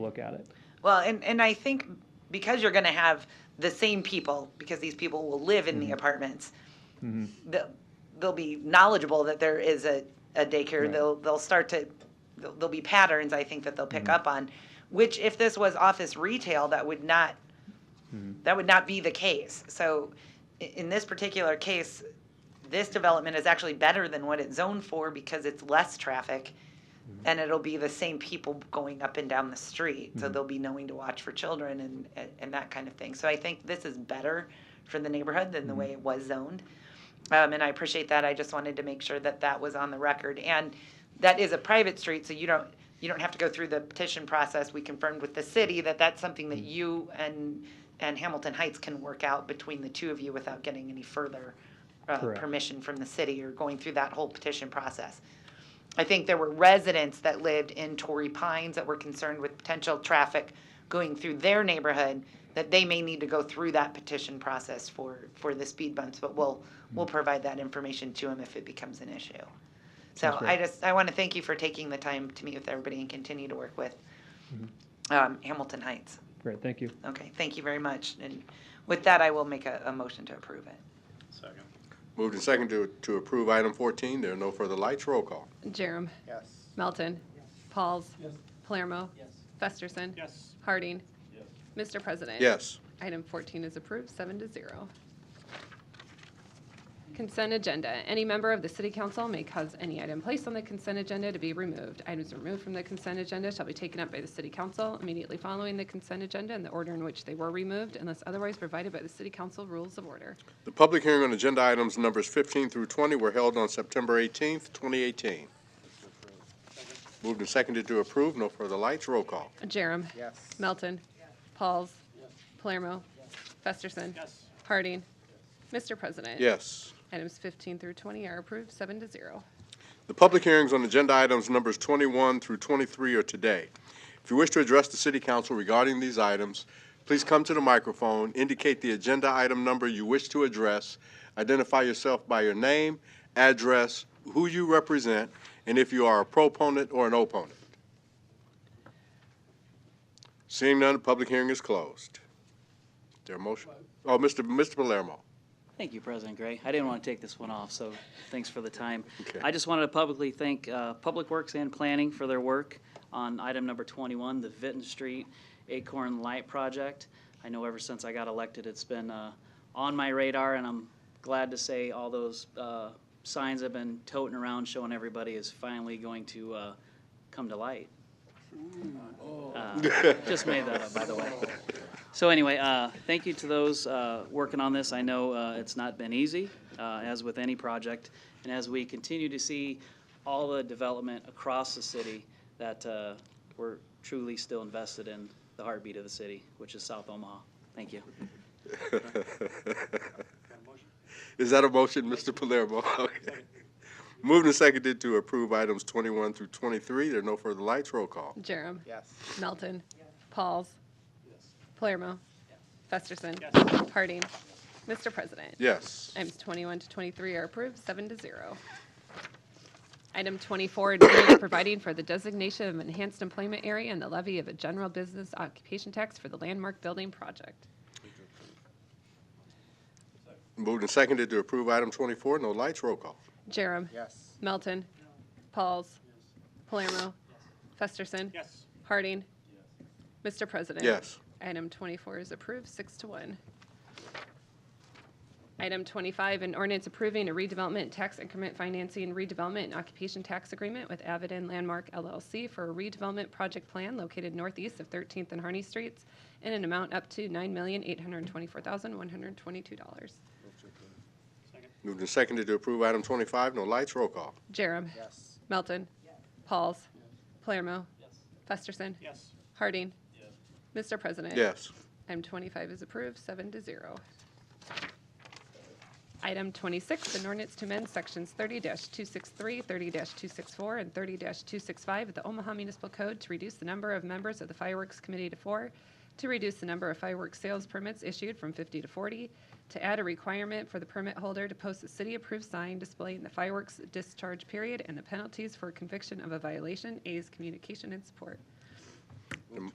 look at it. Well, and, and I think because you're going to have the same people, because these people will live in the apartments, they'll, they'll be knowledgeable that there is a, a daycare. Right. They'll, they'll start to, there'll, there'll be patterns, I think, that they'll pick up on, which if this was office retail, that would not, that would not be the case. So i- in this particular case, this development is actually better than what it's zoned for because it's less traffic and it'll be the same people going up and down the street. So they'll be knowing to watch for children and, and, and that kind of thing. So I think this is better for the neighborhood than the way it was zoned. Um, and I appreciate that. I just wanted to make sure that that was on the record. And that is a private street, so you don't, you don't have to go through the petition process. We confirmed with the city that that's something that you and, and Hamilton Heights can work out between the two of you without getting any further uh, Correct. permission from the city or going through that whole petition process. I think there were residents that lived in Torrey Pines that were concerned with potential traffic going through their neighborhood, that they may need to go through that petition process for, for the speed bumps, but we'll, we'll provide that information to them if it becomes an issue. So Sounds great. I just, I want to thank you for taking the time to meet with everybody and continue to work with Mm-hmm. um, Hamilton Heights. Great, thank you. Okay, thank you very much. And with that, I will make a, a motion to approve it. Second. Moved and second to, to approve item 14. There are no further lights. Roll call. Jerem. Yes. Melton. Pauls. Palermo. Yes. Festerson. Yes. Harding. Yes. Mr. President. Yes. Item 14 is approved, seven to zero. Consent agenda. Any member of the city council may cause any item placed on the consent agenda to be removed. Items removed from the consent agenda shall be taken up by the city council immediately following the consent agenda in the order in which they were removed unless otherwise provided by the city council rules of order. The public hearing on agenda items numbers 15 through 20 were held on September 18th, 2018. Moved and seconded to approve. No further lights. Roll call. Jerem. Yes. Melton. Pauls. Palermo. Festerson. Yes. Harding. Mr. President. Yes. Items 15 through 20 are approved, seven to zero. The public hearings on agenda items numbers 21 through 23 are today. If you wish to address the city council regarding these items, please come to the microphone, indicate the agenda item number you wish to address, identify yourself by your name, address, who you represent, and if you are a proponent or an opponent. Seeing none, the public hearing is closed. Is there a motion? Oh, Mr. Mr. Palermo. Thank you, President Gray. I didn't want to take this one off, so thanks for the time. Okay. I just wanted to publicly thank uh, Public Works and Planning for their work on item number 21, the Vinton Street Acorn Light Project. I know ever since I got elected, it's been uh, on my radar, and I'm glad to say all those uh, signs I've been toting around showing everybody is finally going to uh, come to light. Uh, Just made that up, by the way. So anyway, uh, thank you to those uh, working on this. I know uh, it's not been easy, uh, as with any project, and as we continue to see all the development across the city, that uh, we're truly still invested in the heartbeat of the city, which is South Omaha. Thank you. Is that a motion, Mr. Palermo? Okay. Moved and seconded to approve items 21 through 23. There are no further lights. Roll call. Jerem. Yes. Melton. Pauls. Palermo. Festerson. Harding. Mr. President. Yes. Items 21 to 23 are approved, seven to zero. Item 24, adjournment providing for the designation of enhanced employment area and the levy of a general business occupation tax for the landmark building project. Moved and seconded to approve item 24. No lights. Roll call. Jerem. Yes. Melton. Pauls. Palermo. Festerson. Yes. Harding. Mr. President. Yes. Item 24 is approved, six to one. Item 25, an ordinance approving a redevelopment tax increment financing redevelopment and occupation tax agreement with Avidin Landmark LLC for a redevelopment project plan located northeast of 13th and Harney Streets in an amount up to $9,824,122. Moved and seconded to approve item 25. No lights. Roll call. Jerem. Yes. Melton. Pauls. Palermo. Festerson. Yes. Harding. Mr. President. Yes. Item 25 is approved, seven to zero. Item 26, an ordinance to amend Sections 30-263, 30-264, and 30-265 of the Omaha Municipal Code to reduce the number of members of the Fireworks Committee to four, to reduce the number of fireworks sales permits issued from 50 to 40, to add a requirement for the permit holder to post a city-approved sign displaying the fireworks discharge period and the penalties for conviction of a violation, A's communication and support. The m-